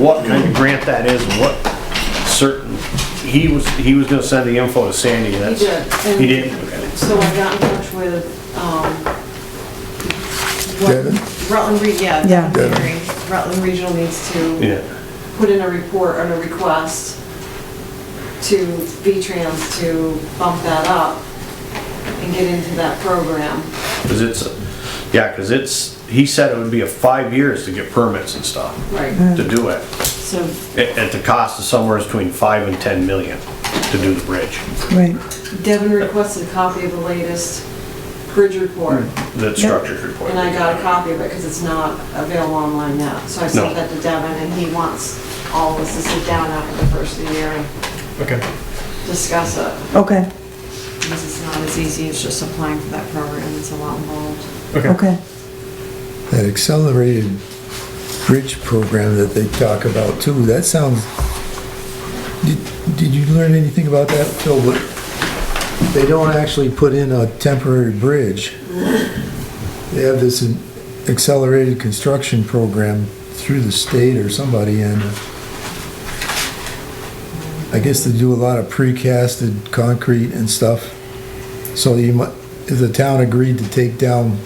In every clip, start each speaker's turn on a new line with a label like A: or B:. A: what kind of grant that is, and what certain, he was, he was gonna send the info to Sandy, that's.
B: did, and-
A: He did,
B: So I got in touch with, um, what-
C: Devin?
B: Rutland, Re- yeah,
D: Yeah.
B: Devin Perry. Rutland Regional needs to
A: yeah.
B: put in a report on a request to V-Trans to bump that up and get into that program.
A: Cause it's, yeah, cause it's, he said it would be a five years to get permits and stuff,
B: Right.
A: to do it.
B: So,
A: At, at the cost of somewhere between five and ten million to do the bridge.
D: right.
B: Devin requested a copy of the latest bridge report,
A: The structures report.
B: and I got a copy of it, because it's not available online now. So I
A: No.
B: sent that to Devin, and he wants all of us to sit down after the first of the year and
E: Okay.
B: discuss it.
D: Okay,
B: Because it's not as easy as just applying for that program, it's a lot involved.
D: okay.
C: That accelerated bridge program that they talk about too, that sounds, did, did you learn anything about that, Phil? What- They don't actually put in a temporary bridge. They have this accelerated construction program through the state or somebody and I guess they do a lot of precasted concrete and stuff. So you might, if the town agreed to take down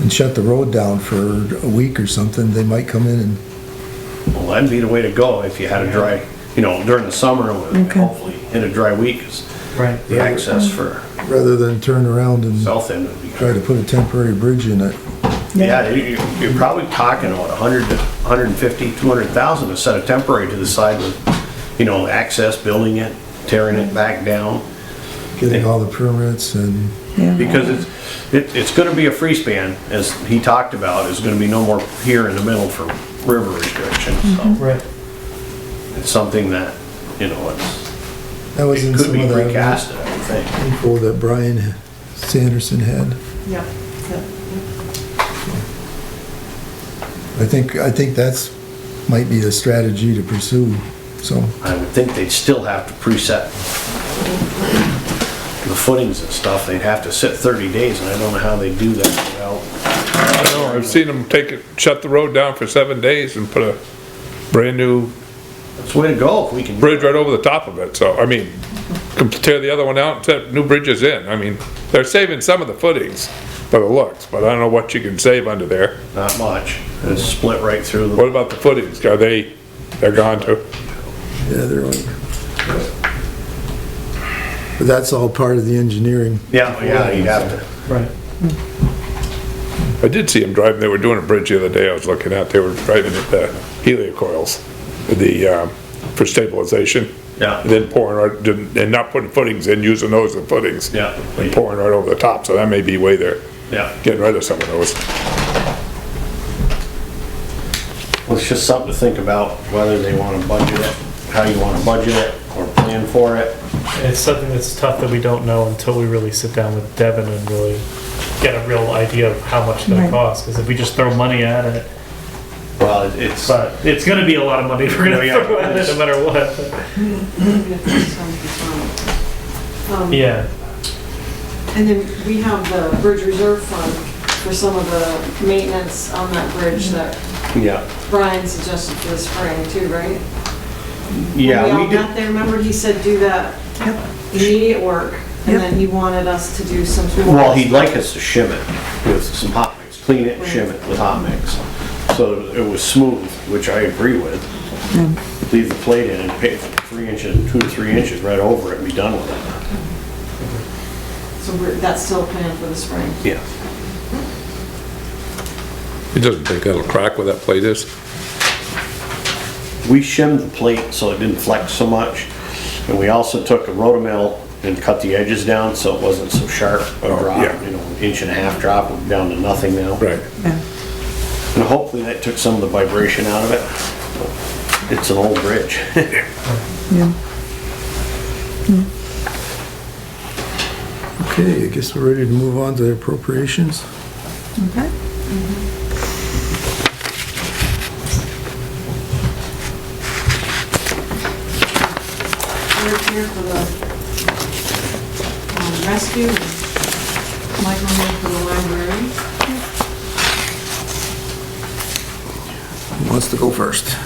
C: and shut the road down for a week or something, they might come in and,
A: Well, that'd be the way to go if you had a dry, you know, during the summer, and
D: Okay.
A: hopefully, in a dry week, 'cause
E: Right.
A: the access for
C: rather than turn around and
A: south end would be
C: try to put a temporary bridge in it.
A: Yeah, you- you- you're probably talking about 100 to 150, 200,000 to set a temporary to the side with, you know, access, building it, tearing it back down.
C: Getting all the permits and,
D: Yeah.
A: Because it's, it- it's gonna be a free span, as he talked about, it's gonna be no more here in the middle for river restrictions. So
E: Right.
A: it's something that, you know, it's,
C: that was
A: it
C: in
A: could
C: some
A: be
C: of that
A: recast, I would think.
C: info that Brian Sanderson had.
B: Yep.
C: I think, I think that's, might be the strategy to pursue, so.
A: I would think they'd still have to preset the footings and stuff. They'd have to sit 30 days, and I don't know how they do that without
F: I know, I've seen them take it, shut the road down for seven days and put a brand-new
A: It's the way to go if we can.
F: bridge right over the top of it, so, I mean, com- tear the other one out and set new bridges in, I mean, they're saving some of the footings by the looks, but I don't know what you can save under there.
A: Not much. It's split right through the.
F: What about the footings, are they, they're gone too?
C: Yeah, they're like. But that's all part of the engineering.
A: Yeah, yeah, you'd have to.
E: Right.
F: I did see them driving, they were doing a bridge the other day I was looking at, they were driving at the heliocoils, the, um, for stabilization.
A: Yeah.
F: And then pouring right, didn't- and not putting footings in, using those as footings.
A: Yeah.
F: And pouring right over the top, so that may be way there,
A: Yeah.
F: getting rid of some of those.
A: Well, it's just something to think about, whether they want to budget it, how you want to budget it, or plan for it.
E: It's something that's tough that we don't know until we really sit down with Devin and really get a real idea of how much it's gonna
D: Right.
E: cost, because if we just throw money at it,
A: Well, it's,
E: but it's gonna be a lot of money we're
A: No,
E: gonna
A: yeah.
E: throw at it no matter what. Yeah,
B: And then we have the bridge reserve fund for some of the maintenance on that bridge that
A: yeah.
B: Brian suggested for the spring too, right?
A: Yeah, we
B: all got
A: did,
B: there, remember he said do that
D: Yep.
B: immediate work, and
D: Yep.
B: then he wanted us to do some.
A: well, he'd like us to shim it with some hot mix, clean it, shim it with hot mix. So it was smooth, which I agree with. Leave the plate in and pick three inches, two to three inches right over it and be done with it.
B: So we're- that's still planned for the spring.
A: Yeah.
F: It doesn't think that'll crack where that plate is?
A: We shimmed the plate so it didn't flex so much. And we also took a rotomill and cut the edges down so it wasn't so sharp a
F: Oh,
A: drop,
F: yeah.
A: you know, an inch and a half drop, we're down to nothing now.
F: Right.
A: And hopefully that took some of the vibration out of it. It's an old bridge.
D: Yeah.
C: Okay, I guess we're ready to move on to appropriations.
D: Okay.
B: We're here for the um, rescue, and Michael moved for the library.
C: Who wants to go first?